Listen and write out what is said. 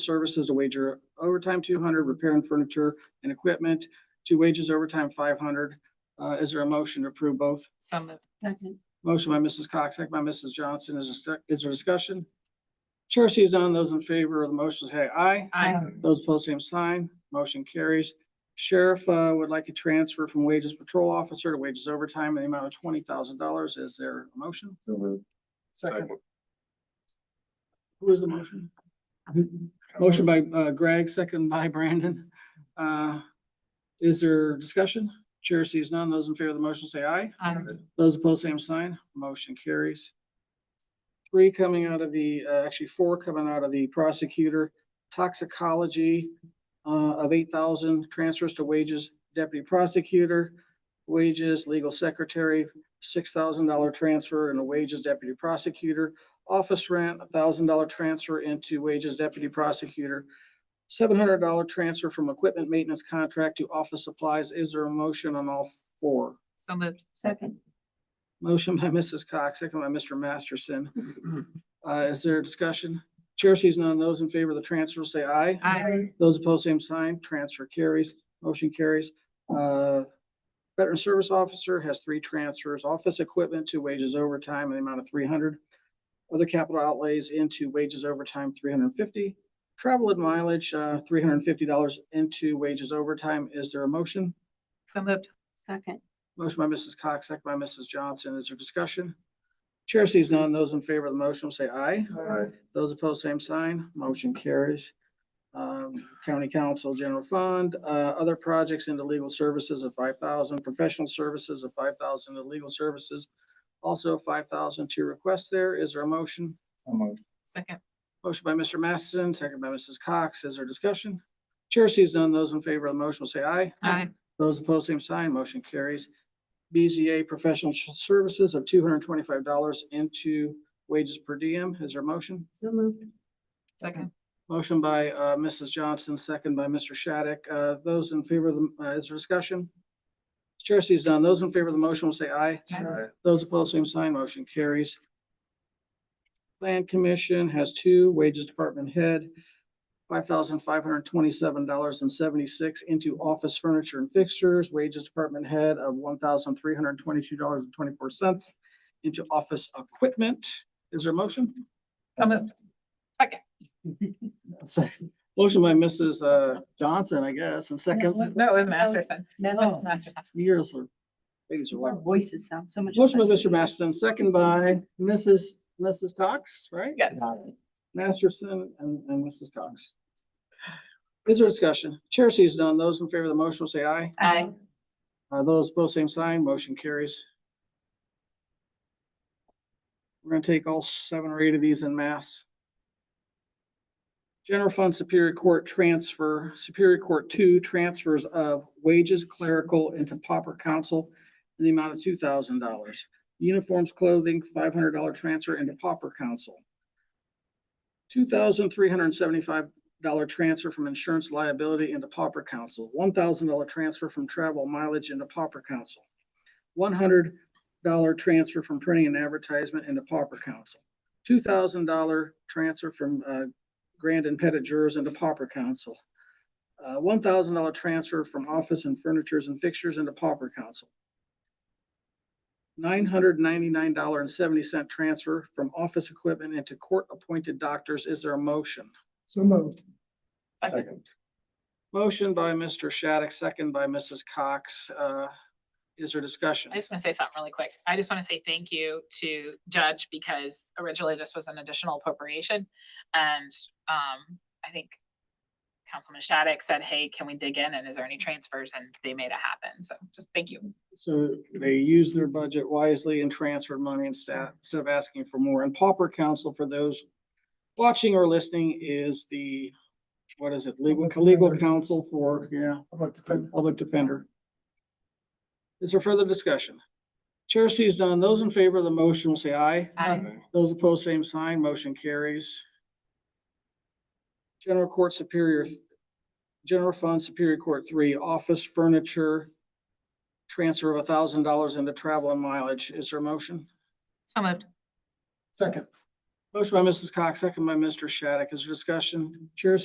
services to wager overtime two hundred, repair and furniture and equipment to wages overtime five hundred. Uh, is there a motion to approve both? So moved. Second, Motion by Mrs. Cox, second by Mrs. Johnson. Is there, stu- is there discussion? Chair sees none. Those in favor of the motion say aye. Aye. Those opposed, same sign. Motion carries. Sheriff, uh, would like a transfer from wages patrol officer to wages overtime in the amount of twenty thousand dollars. Is there a motion? Second. Who is the motion? Motion by uh, Greg, second by Brandon. Uh, Is there discussion? Chair sees none. Those in favor of the motion say aye. Aye. Those opposed, same sign. Motion carries. Three coming out of the, uh, actually four coming out of the prosecutor, toxicology uh, of eight thousand, transfers to wages, deputy prosecutor, wages, legal secretary, six thousand dollar transfer into wages, deputy prosecutor, office rent, a thousand dollar transfer into wages, deputy prosecutor, seven hundred dollar transfer from equipment maintenance contract to office supplies. Is there a motion on all four? So moved. second, Motion by Mrs. Cox, second by Mr. Masterson. Uh, is there discussion? Chair sees none. Those in favor of the transfer say aye. Aye. Those opposed, same sign. Transfer carries. Motion carries. Uh, Veteran Service Officer has three transfers, office equipment to wages overtime in the amount of three hundred. Other capital outlays into wages overtime, three hundred and fifty. Travel and mileage, uh, three hundred and fifty dollars into wages overtime. Is there a motion? So moved. second, Motion by Mrs. Cox, second by Mrs. Johnson. Is there discussion? Chair sees none. Those in favor of the motion will say aye. Those opposed, same sign. Motion carries. Um, County Council General Fund, uh, other projects into legal services of five thousand, professional services of five thousand, to legal services. Also five thousand to request there. Is there a motion? Second. Motion by Mr. Masterson, second by Mrs. Cox. Is there discussion? Chair sees none. Those in favor of the motion will say aye. Aye. Those opposed, same sign. Motion carries. BZA Professional Services of two hundred and twenty-five dollars into wages per diem. Is there a motion? so moved, Second. Motion by uh, Mrs. Johnson, second by Mr. Shattuck. Uh, Those in favor of the, uh, is there discussion? Chair sees none. Those in favor of the motion will say aye. Those opposed, same sign. Motion carries. Plan Commission has two wages department head, five thousand five hundred twenty-seven dollars and seventy-six into office furniture and fixtures, wages department head of one thousand three hundred twenty-two dollars and twenty-four cents into office equipment. Is there a motion? So moved. Second. Motion by Mrs. uh, Johnson, I guess, and second, No, with Masterson. No. Masterson. years or ladies are our like. voices sound so much. Motion by better. Mr. Masterson, second by Mrs. Mrs. Cox, right? Yes. Masterson and, and Mrs. Cox. Is there discussion? Chair sees none. Those in favor of the motion will say aye. Aye. Uh, those opposed, same sign. Motion carries. We're gonna take all seven or eight of these in mass. General Fund Superior Court Transfer, Superior Court Two Transfers of Wages Clerical into Pauper Council in the amount of two thousand dollars. Uniforms Clothing, five hundred dollar transfer into Pauper Council. Two thousand three hundred and seventy-five dollar transfer from insurance liability into pauper council, one thousand dollar transfer from travel mileage into pauper council, one hundred dollar transfer from printing and advertisement into pauper council, two thousand dollar transfer from uh, grand and pettit jurors into pauper council, uh, one thousand dollar transfer from office and furnitures and fixtures into pauper council, nine hundred ninety-nine dollar and seventy cent transfer from office equipment into court-appointed doctors. Is there a motion? So moved. Second. Motion by Mr. Shattuck, second by Mrs. Cox. Uh, Is there discussion? I just want to say something really quick. I just want to say thank you to Judge because originally this was an additional appropriation. And um, I think Councilman Shattuck said, hey, can we dig in and is there any transfers? And they made it happen. So just thank you. So they used their budget wisely and transferred money instead, instead of asking for more. And pauper council for those watching or listening is the, what is it, legal, Public legal defender. counsel for, yeah, About the fence. public defender. Is there further discussion? Chair sees none. Those in favor of the motion will say aye. Aye. Those opposed, same sign, motion carries. General Court Superior, General Fund Superior Court Three, office furniture, transfer of thousand dollars into travel and mileage. Is there a motion? So moved. Second. Motion by Mrs. Cox, second by Mr. Shattuck. Is there discussion? Chair